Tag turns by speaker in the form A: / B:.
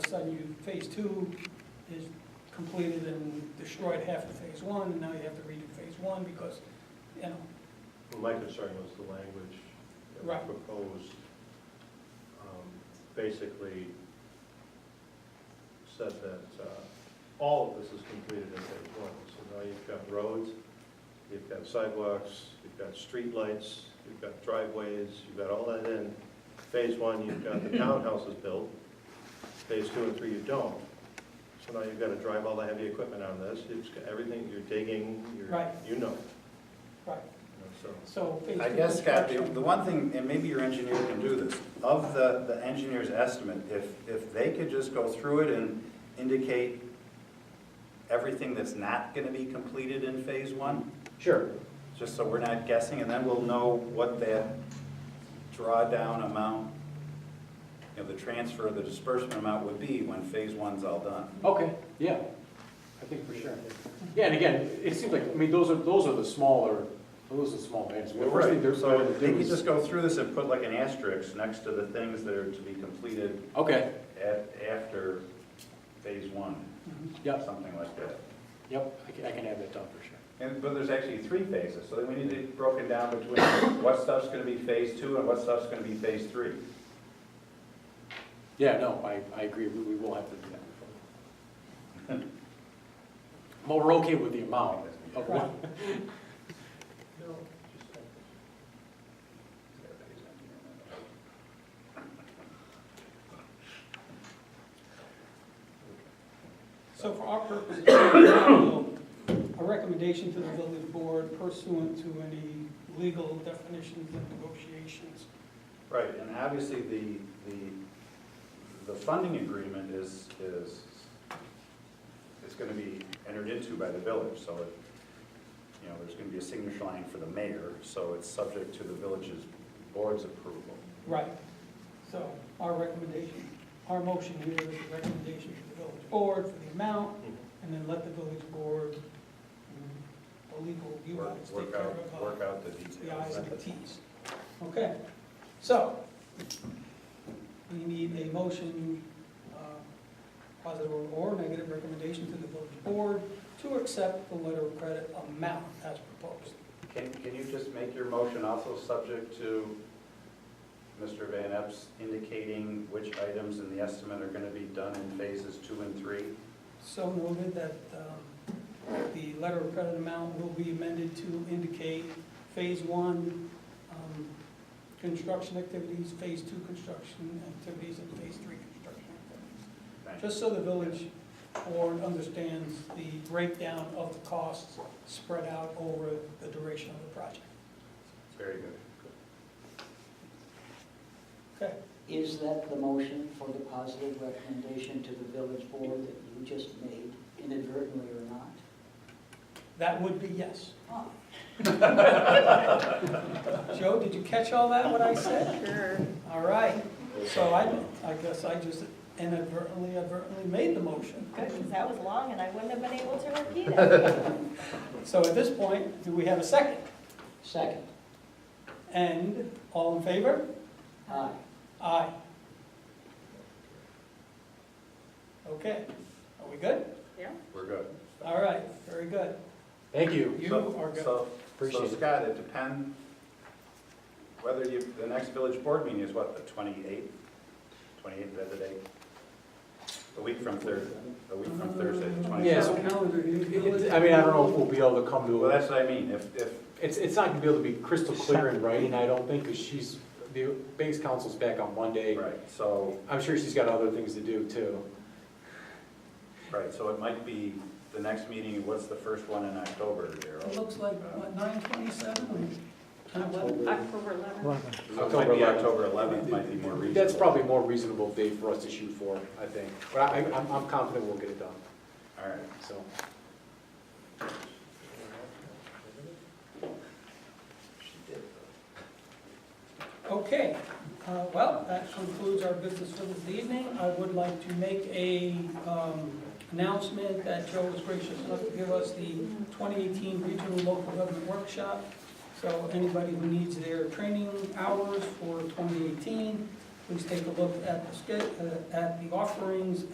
A: sudden you, phase two is completed and destroyed half of phase one, and now you have to redo phase one because, you know,
B: My concern was the language that
A: Right.
B: was proposed, um, basically said that uh, all of this is completed in phase one. So now you've got roads, you've got sidewalks, you've got streetlights, you've got driveways, you've got all that in. Phase one, you've got the townhouses built, phase two and three you don't. So now you've got to drive all the heavy equipment on this, it's, got everything, you're digging, you're,
A: Right.
B: you know,
A: right,
B: you know, so.
A: so phase two.
C: I guess, Scott, the
A: construction-
C: the one thing, and maybe your engineer can do this, of the, the engineer's estimate, if, if they could just go through it and indicate everything that's not gonna be completed in phase one,
B: Sure.
C: just so we're not guessing, and then we'll know what that drawdown amount, you know, the transfer, the disbursement amount would be when phase one's all done.
D: Okay, yeah, I think for sure. Yeah, and again, it seems like, I mean, those are, those are the smaller, those are the small items. But first thing they're
C: So
D: going to
C: they
D: do
C: could
D: is,
C: just go through this and put like an asterisk next to the things that are to be completed
D: okay,
C: at, after phase one.
A: Mhm.
D: yep,
C: something like that.
D: yep, I can, I can add that down for sure.
C: And, but there's actually three phases, so then we need it broken down between what stuff's gonna be phase two and what stuff's gonna be phase three.
D: Yeah, no, I, I agree, we, we will have to do that. But we're okay with the amount of what,
B: No, just like this.
A: So for our purposes, a recommendation to the village board pursuant to any legal definitions and negotiations.
C: Right, and obviously, the, the, the funding agreement is, is, it's gonna be entered into by the village, so it, you know, there's gonna be a signature line for the mayor, so it's subject to the village's board's approval.
A: Right. So our recommendation, our motion here is a recommendation to the village board for the amount, and then let the village board, mm, the legal, you
C: Work
A: guys take
C: work
A: care
C: out,
A: of uh,
C: work out the
A: the i's
C: details.
A: and the t's. Okay, so we need a motion, uh, positive or negative recommendation to the village board to accept the letter of credit amount as proposed.
C: Can, can you just make your motion also subject to Mr. Van Epps indicating which items in the estimate are gonna be done in phases two and three?
A: So noted that um, the letter of credit amount will be amended to indicate Phase 1 um, construction activities, Phase 2 construction activities, and Phase 3 construction activities.
C: Thank you.
A: Just so the village board understands the breakdown of the costs spread out over the duration of the project.
C: Very good.
A: Okay,
E: Is that the motion for the positive recommendation to the village board that you just made inadvertently or not?
A: that would be yes.
E: Ah,
A: Joe, did you catch all that, what I said?
F: Sure.
A: All right, so I, I guess I just inadvertently, advertently made the motion.
F: Good, because that was long and I wouldn't have been able to repeat it.
A: So at this point, do we have a second?
E: Second.
A: And all in favor?
E: Aye.
A: Aye. Okay, are we good?
F: Yeah.
C: We're good.
A: All right, very good.
D: thank you.
A: You
C: So-
A: are good.
C: So, so
D: Appreciate it.
C: Scott, it depends whether you, the next village board meeting is what, the twenty-eighth? Twenty-eighth, the other day? A week from Thursday, a week from Thursday, the
D: Yeah, so-
C: twenty-seventh.
D: I mean, I don't know if we'll be able to come to
C: Well,
D: a
C: that's what I mean, if, if,
D: It's, it's not gonna be able to be crystal clear in writing, I don't think, because she's, the bank's council's back on Monday.
C: right, so.
D: I'm sure she's got other things to do too.
C: Right, so it might be the next meeting, what's the first one in October,
A: It
C: Daryl?
A: looks like, what, nine twenty-seven?
F: October 11th.
C: So it might be October 11th, might be more reasonable.
D: That's probably a more reasonable date for us to shoot for, I think. But I, I'm, I'm confident we'll get it done,
C: All right,
D: so.
A: Okay, uh, well, that concludes our business for this evening. I would like to make a um, announcement that Joe was gracious enough to give us the 2018 Regional Local Government Workshop. So anybody who needs their training hours for 2018, please take a look at the, sched- uh, at the offerings